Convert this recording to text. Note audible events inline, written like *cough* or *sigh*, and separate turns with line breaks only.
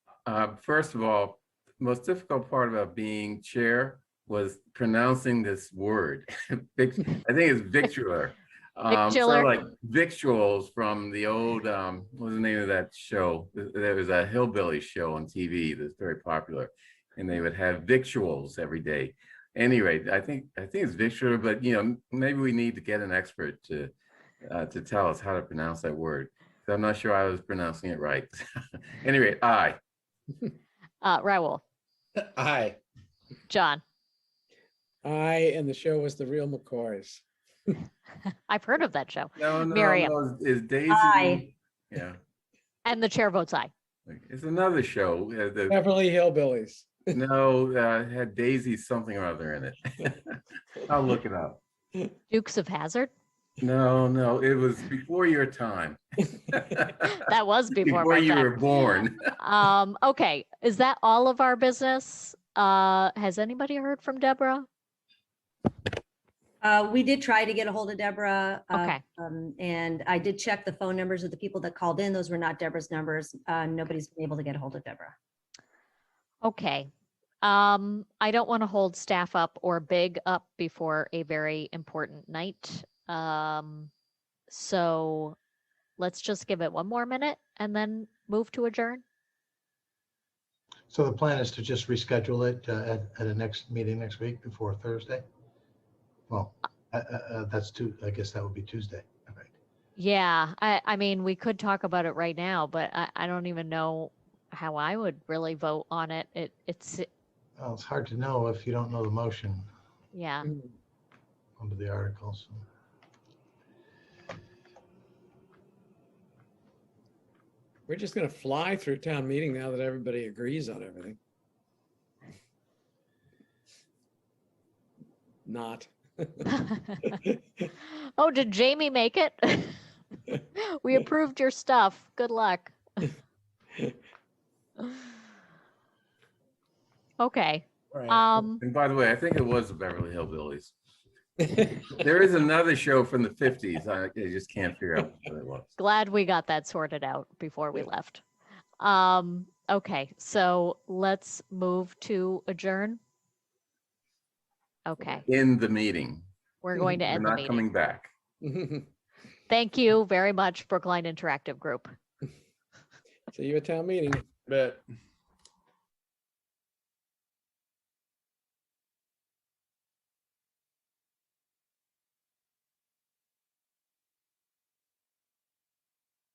Uh, First of all, the most difficult part about being chair was pronouncing this word. *laughs* Vic- I think it's victular. Um, sort
Victular.
of Like victuals from the old, um, what was the name of that show? Th- There was a hillbilly show on TV that's very popular. And they would have victuals every day. Anyway, I think, I think it's victular, but you know, maybe we need to get an expert to, uh, to tell us how to pronounce that word. 'Cause I'm not sure I was pronouncing it right. *laughs* Anyway, aye.
Uh, Raul,
Aye.
John,
Aye, and the show was The Real McCoys.
I've heard of that show.
No, no,
Miriam.
no, Is Daisy?
Aye.
Yeah,
And the chair votes aye.
like, it's another show. uh, the-
Beverly Hillbillies.
No, uh, had Daisy something or other in it. *laughs* I'll look it up.
Dukes
*laughs*
of Hazard.
No, no, it was before your
*laughs*
time.
That was before
Before
my
you were *laughs*
time.
born.
Um, okay, is that all of our business? Uh, has anybody heard from Deborah?
Uh, we did try to get a hold of Deborah. uh,
Okay,
um, And I did check the phone numbers of the people that called in. Those were not Deborah's numbers. Uh, Nobody's been able to get a hold of Deborah.
okay. Um, I don't want to hold staff up or big up before a very important night. Um, so let's just give it one more minute and then move to adjourn.
So the plan is to just reschedule it uh, at, at a next meeting next week before Thursday? Well, uh, uh, uh, that's too, I guess that would be Tuesday. all right.
Yeah, I, I mean, we could talk about it right now, but I, I don't even know how I would really vote on it. It, it's,
Well, it's hard to know if you don't know the motion
yeah. *laughs*
Hmm,
under the articles.
We're just gonna fly through town meeting now that everybody agrees on everything. Not.
Oh, did Jamie make it? *laughs* We approved your stuff. Good luck. *laughs* Okay,
*laughs*
um,
And by the way, I think it was the Beverly Hillbillies. There is another show from the fifties. I I just can't figure out what it was.
glad we got that sorted out before we left. Um, okay, so let's move to adjourn. Okay,
In the meeting.
we're going to
We're
end
Mm-hmm.
the
not
meeting.
coming back.
Thank you very much, Brookline Interactive Group.
See you at town meeting.
Bet.